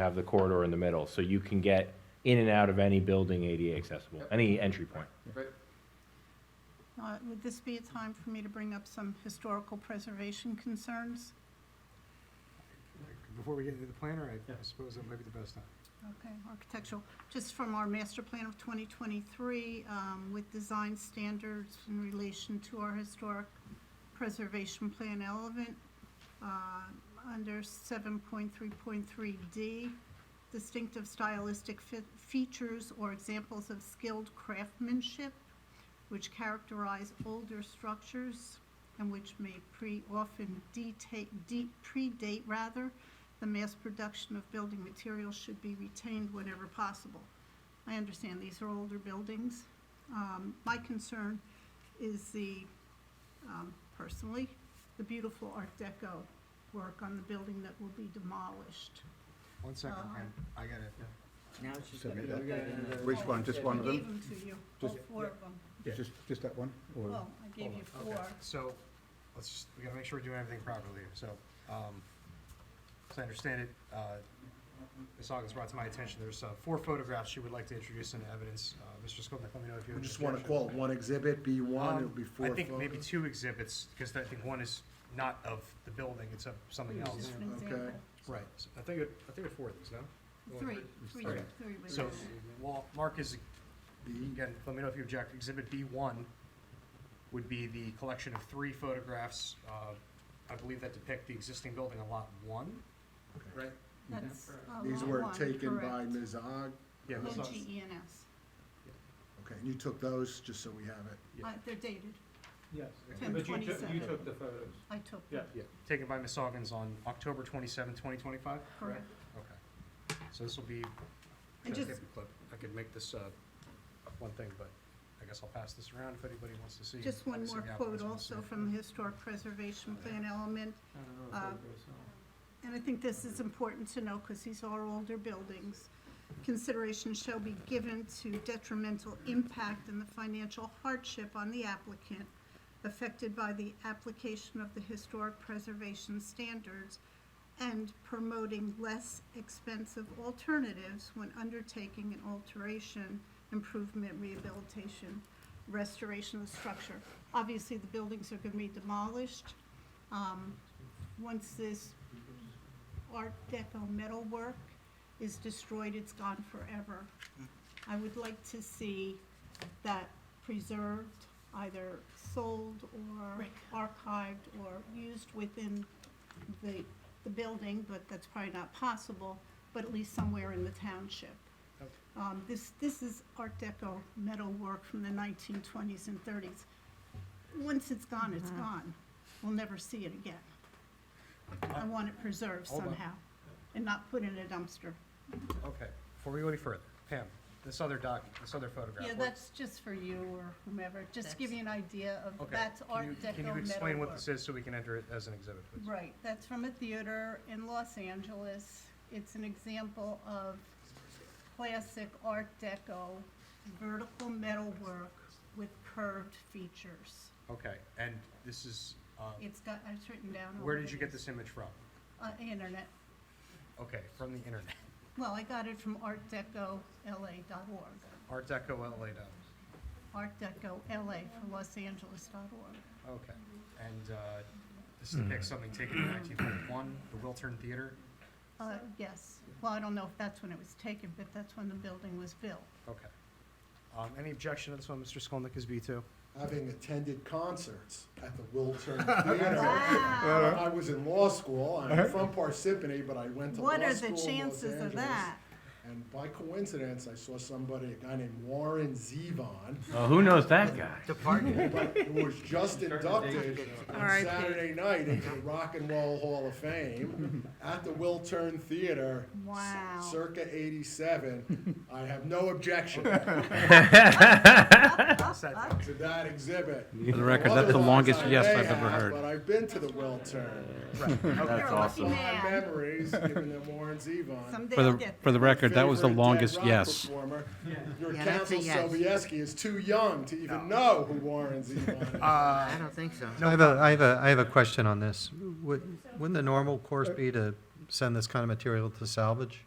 have the corridor in the middle, so you can get in and out of any building ADA accessible, any entry point. Right. Uh, Would this be a time for me to bring up some historical preservation concerns? Before we get into the planner, I suppose that might be the best time. Okay, architectural, just from our master plan of 2023, um, with design standards in relation to our historic preservation plan element, uh, under 7.3.3D, distinctive stylistic fe- features or examples of skilled craftsmanship which characterize older structures and which may pre, often deta- de- predate rather, the mass production of building materials should be retained whenever possible. I understand these are older buildings. Um, my concern is the, um, personally, the beautiful Art Deco work on the building that will be demolished. One second, Uh-huh. I'm- I got it. Now she's got Submit it. Which one, just one of I them? gave them to you, all Just- four of them. Just, just that one? Or Well, I gave you Okay, four. so, let's, just- we gotta make sure we're doing everything properly, here. so, um, as I understand it, uh, Ms. Hawkins brought to my attention, there's, uh, four photographs she would like to introduce into evidence. Uh, Mr. Skolnick, let me know if you we have. just any want to objection. call it one exhibit, B one, it'll be Um, four. I think photos. maybe two exhibits, because I think one is not of the building, it's of something Just else. an Okay. example. Right, So I think, it- I think it's four of these, no? Three, three, Okay. three with So, that. well, Mark is B, Again, let me know if you object. Exhibit B1 would be the collection of three photographs. uh, I believe that depict the existing building on Lot 1, right? That's uh, these lot were one, taken by correct. Ms. Og, Yeah, O Ms. Hawes. G E N S. okay, and you took those, just so we have it. Yeah. Uh, They're dated. Yes, Ten but you took, you twenty-seven. took the photos. I took Yeah. them, taken by Ms. Hawkins on October 27, 2025? correct. Okay. So this will be, And should I just- get the clip? I could make this uh, one thing, but I guess I'll pass this around if anybody wants to see. Just one Obviously, more the quote applicants want to see also it. from the historic preservation plan element. I don't know Uh, if it goes on. And I think this is important to know because these are older buildings. Consideration shall be given to detrimental impact and the financial hardship on the applicant affected by the application of the historic preservation standards and promoting less expensive alternatives when undertaking an alteration, improvement, rehabilitation, restoration of the structure. Obviously, the buildings are going to be demolished. Um, Once this Art Deco metalwork is destroyed, it's gone forever. I would like to see that preserved, either sold or archived or used within the, the building, but that's probably not possible, but at least somewhere in the township. Okay. Um, this, this is Art Deco metalwork from the nineteen twenties and thirties. Once it's gone, it's gone. We'll never see it again. I want it preserved Uh, Hold on. somehow and not put in a dumpster. Okay, before we go any further, Pam, this other doc, this other photograph. Yeah, what- that's just for you or whomever, just to give you an idea of, Okay. that's Can Art you- Deco metalwork. Can you explain what this is so we can enter it as an exhibit, please? Right, that's from a theater in Los Angeles. It's an example of classic Art Deco vertical metalwork with curved features. Okay, and this is, uh, It's got, it's written down. where over did you there. get this image from? Uh, internet. Okay, from the internet, Well, I got it from artdecola.org, Art Deco LA dot, artdecola for Los Angeles.org. okay. And uh, this depicts something taken in 1941, the Wiltern Theater? Uh, yes, well, I don't know if that's when it was taken, but that's when the building was built. Okay. Um, Any objection to this one, Mr. Skolnick, is B2? Having attended concerts at the Wiltern Theater. Wow, I was in law school, I'm from Parsippany, but I went to law what school in are Los the chances of Angeles. that? And by coincidence, I saw somebody, a guy named Warren Zevon, Oh, who knows that guy? but who was just inducted on R.I.P. Saturday night into the Rock and Roll Hall of Fame at the Wiltern Theater. c- Wow. Circa eighty-seven. I have no objection What's that? to that exhibit. For the record, that's the longest yes I've ever But heard. I've been to the Wiltern. That's awesome. Fond memories, given them Warren Zevon. Someday For I'll the, get for the record, that was the Favorite dead longest rock yes. performer. Your Yeah, that's a counsel yes. Sobieski is too young to even know who Warren Zevon uh, is. I don't think so. I have a, I have a, I have a question on this. Would, wouldn't the normal course be to send this kind of material to salvage?